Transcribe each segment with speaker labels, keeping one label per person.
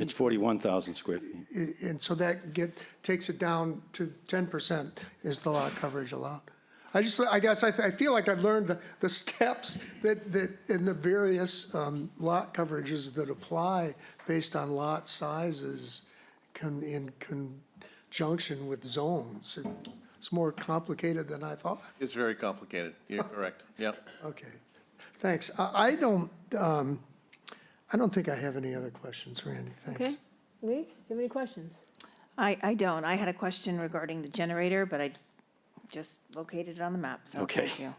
Speaker 1: It's 41,000 square feet.
Speaker 2: I- And so that get, takes it down to ten percent is the lot coverage allowed. I just, I guess, I, I feel like I've learned the, the steps that, that, in the various, um, lot coverages that apply based on lot sizes con, in conjunction with zones. It's more complicated than I thought.
Speaker 3: It's very complicated. You're correct. Yep.
Speaker 2: Okay, thanks. I, I don't, um, I don't think I have any other questions, Randy,
Speaker 4: Okay.
Speaker 2: thanks.
Speaker 4: Lee, do you have any questions?
Speaker 5: I, I don't. I had a question regarding the generator, but I just located it on the map, so
Speaker 1: Okay.
Speaker 5: thank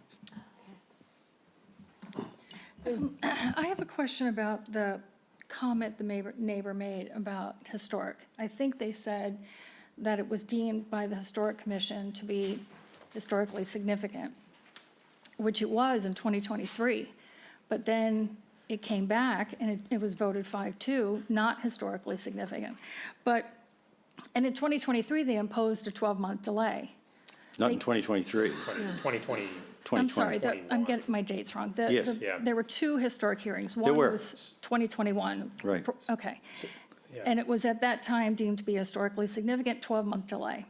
Speaker 5: you.
Speaker 6: I have a question about the comment the neighbor, neighbor made about historic. I think they said that it was deemed by the Historic Commission to be historically significant, which it was in 2023. But then it came back and it, it was voted 5-2, not historically significant. But, and in 2023, they imposed a 12-month delay.
Speaker 1: Not in 2023,
Speaker 7: 2020,
Speaker 6: I'm sorry,
Speaker 1: 2020.
Speaker 6: the- I'm getting my dates wrong. The-
Speaker 1: Yes.
Speaker 6: the-
Speaker 7: Yeah.
Speaker 6: There were two historic hearings.
Speaker 1: were.
Speaker 6: One was 2021.
Speaker 1: Right.
Speaker 6: Pro- Okay. And it was at that time deemed to be historically significant, 12-month delay.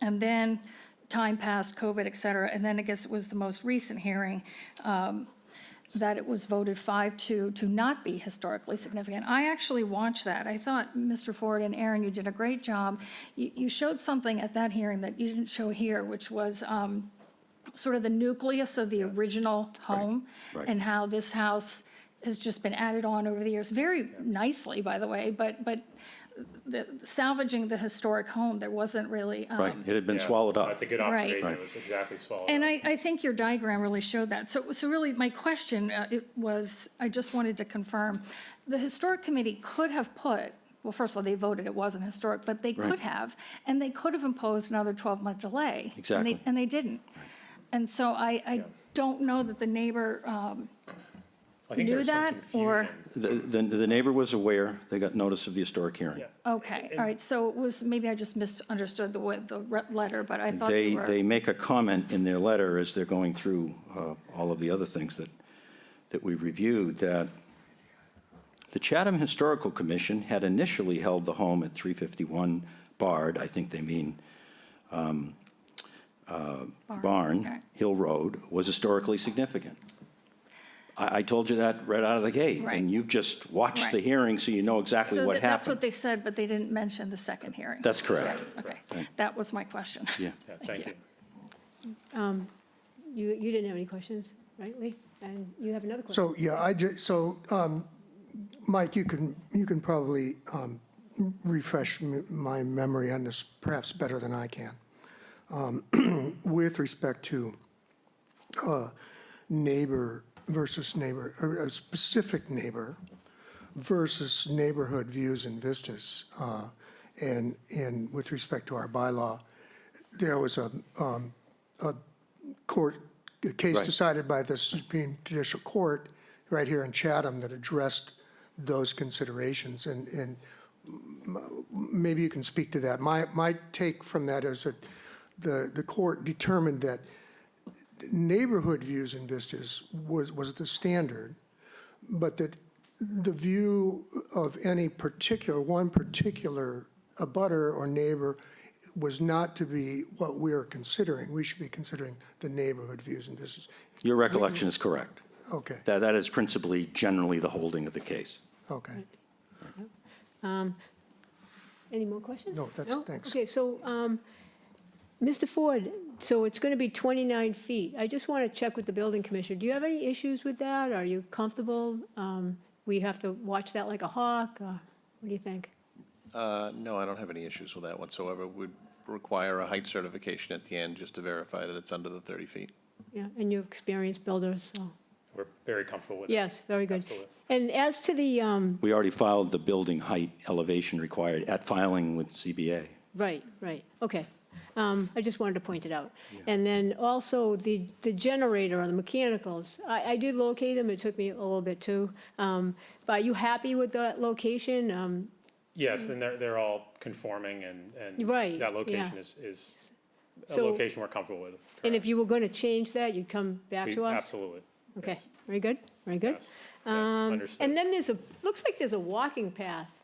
Speaker 6: And then time passed, COVID, et cetera, and then I guess it was the most recent hearing um, that it was voted 5-2 to not be historically significant. I actually watched that. I thought, Mr. Ford and Aaron, you did a great job. You you showed something at that hearing that you didn't show here, which was um, sort of the nucleus of the original home
Speaker 1: right.
Speaker 6: and how this house has just been added on over the years, very nicely, by the way, but, but the- salvaging the historic home, there wasn't really. um,
Speaker 1: right? It had been swallowed up.
Speaker 7: That's a good
Speaker 6: Right.
Speaker 7: observation. It was exactly swallowed up.
Speaker 6: And I, I think your diagram really showed that. So, so really, my question uh, it was, I just wanted to confirm, the Historic Committee could have put, well, first of all, they voted it wasn't historic, but they
Speaker 1: Right.
Speaker 6: could have, and they could have imposed another 12-month delay. and they-
Speaker 1: Exactly.
Speaker 6: And they didn't. And so I, I don't know that the neighbor um,
Speaker 7: I think
Speaker 6: knew
Speaker 7: there was some
Speaker 6: that, or,
Speaker 7: confusion.
Speaker 1: The, the the neighbor was aware, they got notice of the historic hearing.
Speaker 6: okay, all right, so it was, maybe I just misunderstood the, way- the re- letter, but I thought they
Speaker 1: They,
Speaker 6: were.
Speaker 1: they make a comment in their letter as they're going through uh, all of the other things that, that we reviewed, that the Chatham Historical Commission had initially held the home at 351 Bard, I think they mean um, uh,
Speaker 6: okay.
Speaker 1: Barn, Hill Road, was historically significant. I, I told you that right out of the gate.
Speaker 6: Right.
Speaker 1: And you've just watched the
Speaker 6: Right.
Speaker 1: hearing, so you know exactly
Speaker 6: So
Speaker 1: what
Speaker 6: that- that's what
Speaker 1: happened.
Speaker 6: they said, but they didn't mention the second hearing.
Speaker 1: That's correct.
Speaker 6: Right, Okay, that was my question.
Speaker 1: Yeah.
Speaker 7: Yeah, thank you.
Speaker 4: Um, You, you didn't have any questions, right, Lee? And you have another question?
Speaker 2: So, yeah, I just, so, um, Mike, you can, you can probably, um, refresh m- my memory on this perhaps better than I can. Um, with respect to, uh, neighbor versus neighbor, or a specific neighbor versus neighborhood views and vistas, uh, and, and with respect to our bylaw, there was a, um, a court, a case
Speaker 1: Right.
Speaker 2: decided by the Supreme Judicial Court right here in Chatham that addressed those considerations, and, and m- maybe you can speak to that. My, my take from that is that the, the court determined that neighborhood views and vistas was, was the standard, but that the view of any particular, one particular abutter or neighbor was not to be what we are considering. We should be considering the neighborhood views and vistas.
Speaker 1: Your recollection is correct.
Speaker 2: Okay,
Speaker 1: That, that is principally generally the holding of the case.
Speaker 2: okay.
Speaker 4: Any more questions?
Speaker 2: No, that's- thanks.
Speaker 4: Okay, so, um, Mr. Ford, so it's going to be 29 feet. I just want to check with the building commissioner. Do you have any issues with that? Are you comfortable? Um, We have to watch that like a hawk? or What do you think?
Speaker 3: Uh, No, I don't have any issues with that whatsoever. Would require a height certification at the end just to verify that it's under the 30 feet.
Speaker 4: Yeah, and you're experienced builders, so,
Speaker 7: We're very comfortable with it.
Speaker 4: yes, very good.
Speaker 7: Absolutely.
Speaker 4: And as to the, um,
Speaker 1: We already filed the building height elevation required at filing with CBA.
Speaker 4: Right, right, okay.
Speaker 7: Mm-hmm.
Speaker 4: Um, I just wanted to point it out. And then also the, the generator on the mechanicals, I, I did locate them, it took me a little bit too. Um, But are you happy with that location? Um,
Speaker 7: Yes, then they're, they're all conforming and, and.
Speaker 4: Right,
Speaker 7: That location
Speaker 4: yeah.
Speaker 7: is, is a
Speaker 4: So-
Speaker 7: location we're comfortable with.
Speaker 4: And if you were going to change that, you'd come back
Speaker 7: We-
Speaker 4: to us?
Speaker 7: Absolutely.
Speaker 4: Okay,
Speaker 7: yes,
Speaker 4: very good, very good.
Speaker 7: yes. Yeah,
Speaker 4: Um,
Speaker 7: Understood.
Speaker 4: And then there's a, looks like there's a walking path